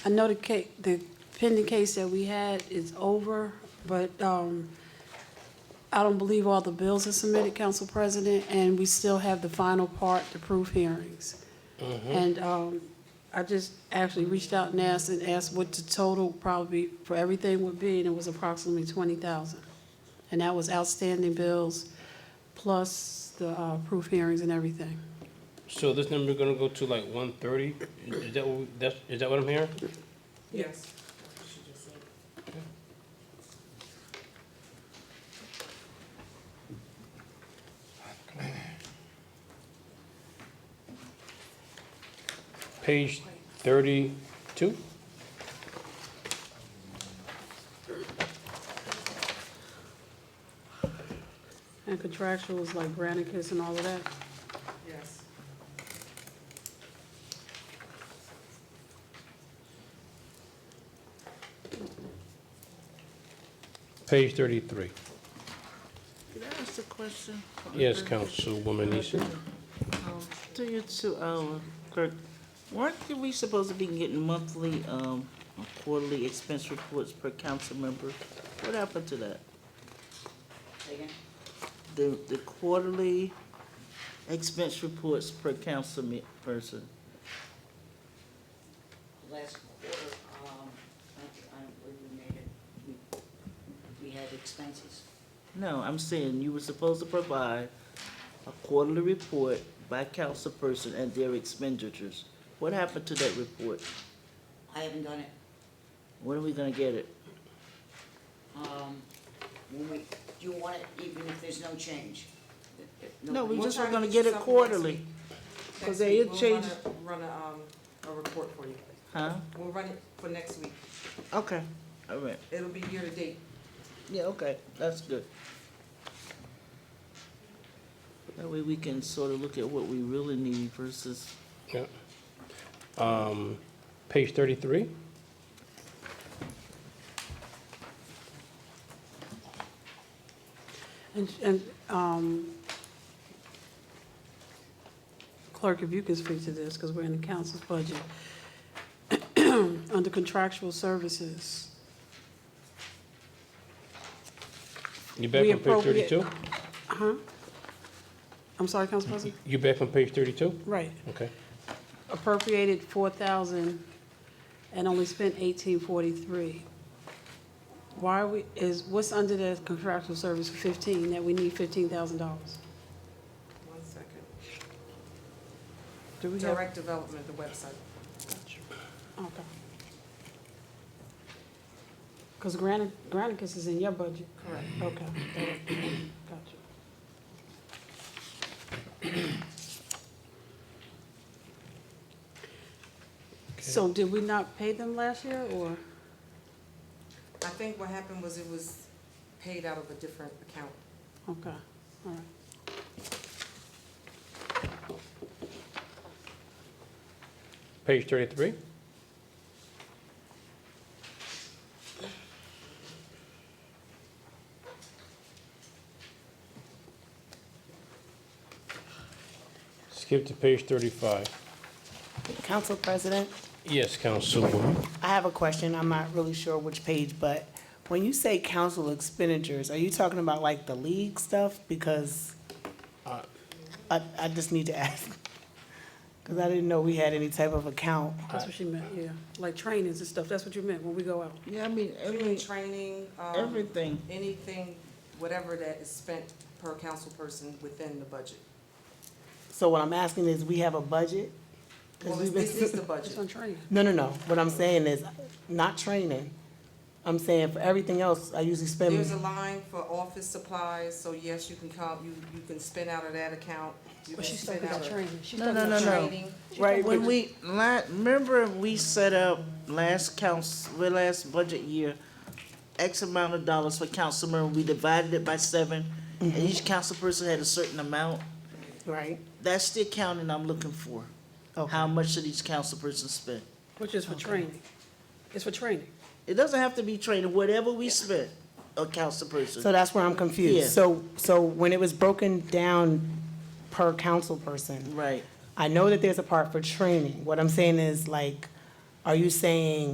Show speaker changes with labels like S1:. S1: I know the ca, the pending case that we had is over, but, um, I don't believe all the bills are submitted, Council President, and we still have the final part, the proof hearings. And, um, I just actually reached out and asked, and asked what the total probably for everything would be, and it was approximately twenty thousand. And that was outstanding bills, plus the, uh, proof hearings and everything.
S2: So this number gonna go to like one thirty? Is that what, we- that's, is that what I'm hearing?
S3: Yes.
S2: Page thirty-two?
S1: And contractuals like Granicus and all of that.
S3: Yes.
S2: Page thirty-three.
S4: Can I ask a question?
S2: Yes, Councilwoman Easton.
S4: To you two, uh, Kirk, weren't we supposed to be getting monthly, um, or quarterly expense reports per council member? What happened to that? The, the quarterly expense reports per council me- person?
S5: Last quarter, um, I, I don't believe we made it. We- We had expenses.
S4: No, I'm saying you were supposed to provide a quarterly report by council person and their expenditures. What happened to that report?
S5: I haven't done it.
S4: When are we gonna get it?
S5: Um, when we, do you want it even if there's no change? If- if
S4: No, we
S5: nobody-
S3: We'll
S4: just
S3: try
S4: were
S3: to
S4: gonna
S3: get
S4: get
S3: you something
S4: it
S3: next
S4: quarterly.
S3: week.
S4: Cause
S3: Next
S4: they
S3: week,
S4: had
S3: we'll
S4: changed-
S3: Run a, run a, um, a report for you.
S4: Huh?
S3: We'll run it for next week.
S4: Okay, all right.
S3: It'll be year to date.
S4: Yeah, okay, that's good. That way we can sort of look at what we really need versus,
S2: Yeah. Um, page thirty-three?
S1: And, and, um, clerk, if you can speak to this, because we're in the council's budget. Under contractual services,
S2: You back
S1: We
S2: on page
S1: appropriate-
S2: thirty-two?
S1: huh? I'm sorry, Council President?
S2: You back on page thirty-two?
S1: Right.
S2: Okay.
S1: Appropriated four thousand and only spent eighteen forty-three. Why are we, is, what's under the contractual service for fifteen, that we need fifteen thousand dollars?
S3: One second.
S1: Do we have?
S3: Direct development, the website.
S1: Okay. Because Granicus is in your budget? Correct. Okay. Gotcha. So did we not pay them last year, or?
S3: I think what happened was it was paid out of a different account.
S1: Okay, all right.
S2: Page thirty-three? Skip to page thirty-five.
S6: Council President,
S2: Yes, Councilwoman.
S6: I have a question. I'm not really sure which page, but when you say council expenditures, are you talking about like the league stuff? Because I, I just need to ask. Because I didn't know we had any type of account.
S1: That's what she meant, yeah, like trainings and stuff, that's what you meant when we go out.
S4: yeah, I mean,
S3: Any
S4: every,
S3: training, um,
S4: everything.
S3: anything, whatever that is spent per council person within the budget.
S6: So what I'm asking is, we have a budget? 'Cause
S3: Well,
S6: we've been-
S3: this is the
S1: It's
S3: budget.
S1: on training.
S6: No, no, no. What I'm saying is, not training. I'm saying for everything else, I usually spend.
S3: There's a line for office supplies, so yes, you can come, you, you can spend out of that account. You
S1: But
S3: can
S1: she's
S3: spend
S1: talking about
S3: out of-
S1: training, she's
S4: No,
S1: talking
S4: no,
S1: about
S4: no, no.
S1: training.
S3: Training,
S6: Right,
S4: When we, la- remember we set up last council, well, last budget year, X amount of dollars for council member, we divided it by seven, and each council person had a certain amount.
S6: Right,
S4: That's the accounting I'm looking for. How much did each council person spend?
S1: Which is for training. It's for training.
S4: It doesn't have to be training, whatever we spent, a council person.
S6: so that's where I'm
S4: Yeah.
S6: confused. So, so when it was broken down per council person,
S4: Right.
S6: I know that there's a part for training. What I'm saying is like, are you saying